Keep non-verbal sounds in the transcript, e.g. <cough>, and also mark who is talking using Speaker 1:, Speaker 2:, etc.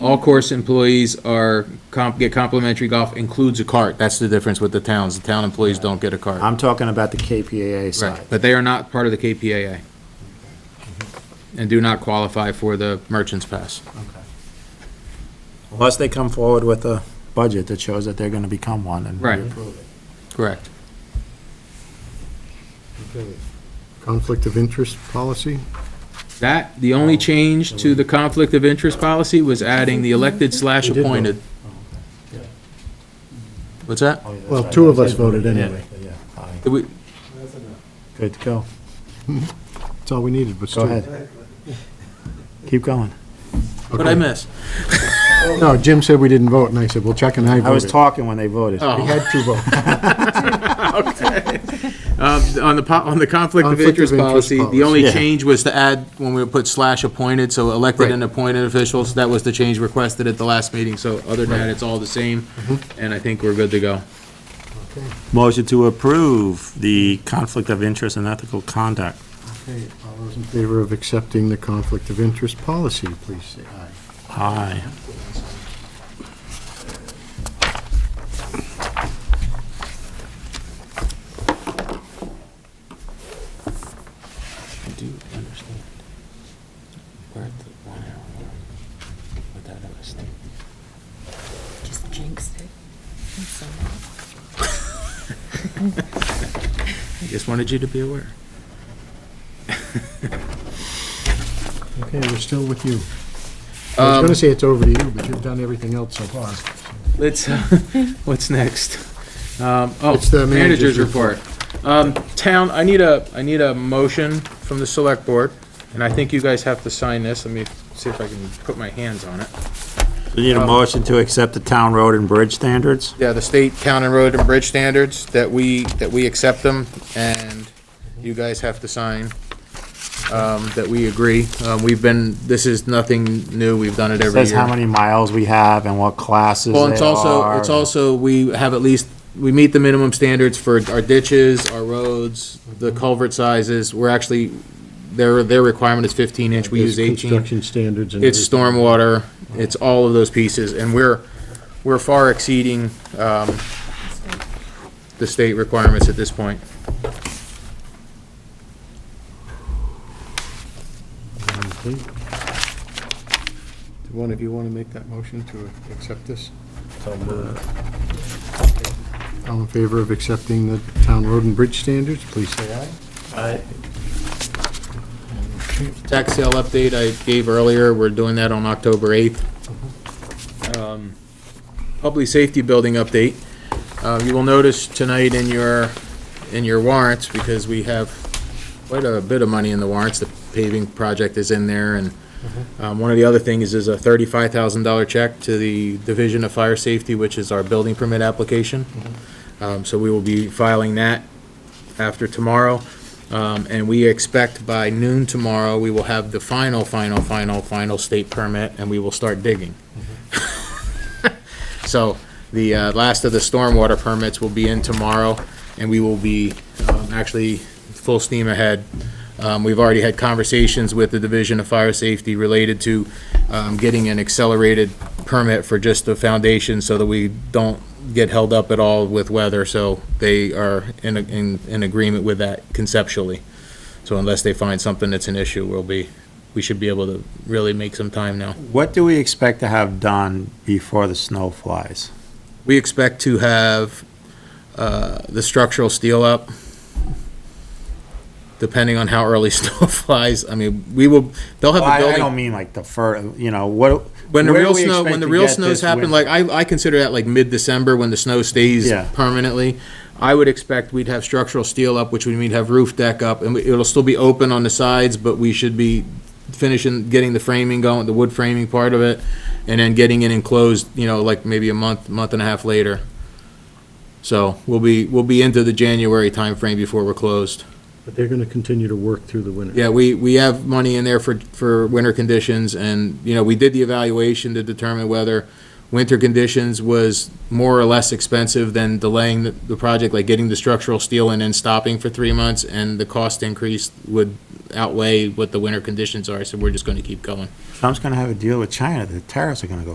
Speaker 1: All course employees are, comp- get complimentary golf includes a cart. That's the difference with the towns. The town employees don't get a cart.
Speaker 2: I'm talking about the KPAA
Speaker 1: Right,
Speaker 2: side.
Speaker 1: But they are not part of the KPAA. And do not qualify for the merchant's pass.
Speaker 2: Unless they come forward with a budget that shows that they're gonna become one and.
Speaker 1: Right.
Speaker 2: we approve.
Speaker 1: Correct.
Speaker 3: Okay. Conflict of interest policy?
Speaker 1: That, the only change to the conflict of interest policy was adding the elected slash
Speaker 3: We did vote.
Speaker 1: appointed. What's that?
Speaker 3: Well, two of us voted anyway.
Speaker 1: Did we-
Speaker 2: Good to go.
Speaker 3: That's all we needed, but
Speaker 2: Go
Speaker 3: still.
Speaker 2: ahead. Keep going.
Speaker 1: What'd I miss?
Speaker 3: No, Jim said we didn't vote, and I said, well, check and I voted.
Speaker 2: I was talking when they voted.
Speaker 3: We
Speaker 1: Oh.
Speaker 3: had two votes. <laughs>
Speaker 1: Um, On the, po- on the conflict of
Speaker 3: Conflict of
Speaker 1: interest
Speaker 3: interest
Speaker 1: policy, the
Speaker 3: policy.
Speaker 1: only
Speaker 2: Yeah.
Speaker 1: change was to add, when we put slash appointed, so elected
Speaker 3: Right.
Speaker 1: and appointed officials, that was the change requested at the last meeting, so other than that, it's all the same, and I think we're good to go.
Speaker 2: Motion to approve the conflict of interest and ethical conduct.
Speaker 3: Okay, All those in favor of accepting the conflict of interest policy, please say aye.
Speaker 2: Aye.
Speaker 1: I do understand. We're at the one hour mark with that other state.
Speaker 4: Just jinxed it. I'm so mad.
Speaker 1: I just wanted you to be aware.
Speaker 3: Okay, we're still with you. I
Speaker 1: Um,
Speaker 3: was gonna say it's over to you, but you've done everything else so far.
Speaker 1: Let's, uh, <laughs> what's next? Um, Oh,
Speaker 3: It's the
Speaker 1: manager's
Speaker 3: manager's
Speaker 1: report. Um, Town, I need a, I need a motion from the select board, and I think you guys have to sign this. Let me see if I can put my hands on it.
Speaker 2: We
Speaker 1: Um,
Speaker 2: need a motion to accept the town road and bridge standards?
Speaker 1: Yeah, the state, town and road and bridge standards, that we, that we accept them, and you guys have to sign um, that we agree. Um, We've been, this is nothing new, we've done it every year.
Speaker 2: Says how many miles we have and what classes they
Speaker 1: Well, it's also,
Speaker 2: are.
Speaker 1: it's also, we have at least, we meet the minimum standards for our ditches, our roads, the culvert sizes. We're actually, their, their requirement is fifteen inch, we use eighteen.
Speaker 3: Construction standards and.
Speaker 1: It's stormwater, it's all of those pieces, and we're, we're far exceeding, um, the state requirements at this point.
Speaker 3: everything. Do one of you want to make that motion to accept this? All in favor of accepting the town road and bridge standards, please say aye.
Speaker 1: Tax sale update I gave earlier, we're doing that on October eighth. Um, Public safety building update. Uh, you will notice tonight in your, in your warrants, because we have quite a bit of money in the warrants, the paving project is in there, and, um, one of the other things is a thirty-five thousand dollar check to the Division of Fire Safety, which is our building permit application. Um, so we will be filing that after tomorrow. Um, and we expect by noon tomorrow, we will have the final, final, final, final state permit, and we will start digging. <laughs> So the uh, last of the stormwater permits will be in tomorrow, and we will be um, actually full steam ahead. Um, We've already had conversations with the Division of Fire Safety related to um, getting an accelerated permit for just the foundation so that we don't get held up at all with weather, so they are in, in, in agreement with that conceptually. So unless they find something that's an issue, we'll be, we should be able to really make some time now.
Speaker 2: What do we expect to have done before the snow flies?
Speaker 1: We expect to have uh, the structural steel up, depending on how early <laughs> snow flies. I mean, we will, they'll have
Speaker 2: Well, I
Speaker 1: the
Speaker 2: I don't
Speaker 1: building,
Speaker 2: mean like the fir, you know, what.
Speaker 1: when the
Speaker 2: where do
Speaker 1: real
Speaker 2: we
Speaker 1: snow,
Speaker 2: expect
Speaker 1: when the
Speaker 2: to
Speaker 1: real
Speaker 2: get
Speaker 1: snows
Speaker 2: this
Speaker 1: happen,
Speaker 2: winter?
Speaker 1: like, I, I consider that like mid-December, when the snow stays
Speaker 2: Yeah.
Speaker 1: permanently. I would expect we'd have structural steel up, which would mean have roof deck up, and it'll still be open on the sides, but we should be finishing, getting the framing going, the wood framing part of it, and then getting it enclosed, you know, like maybe a month, month and a half later. So we'll be, we'll be into the January timeframe before we're closed.
Speaker 3: But they're going to continue to work through the winter.
Speaker 1: Yeah, we, we have money in there for, for winter conditions, and, you know, we did the evaluation to determine whether winter conditions was more or less expensive than delaying the, the project, like getting the structural steel in and stopping for three months, and the cost increase would outweigh what the winter conditions are, so we're just gonna keep going.
Speaker 2: Trump's gonna have a deal with China, the tariffs are gonna go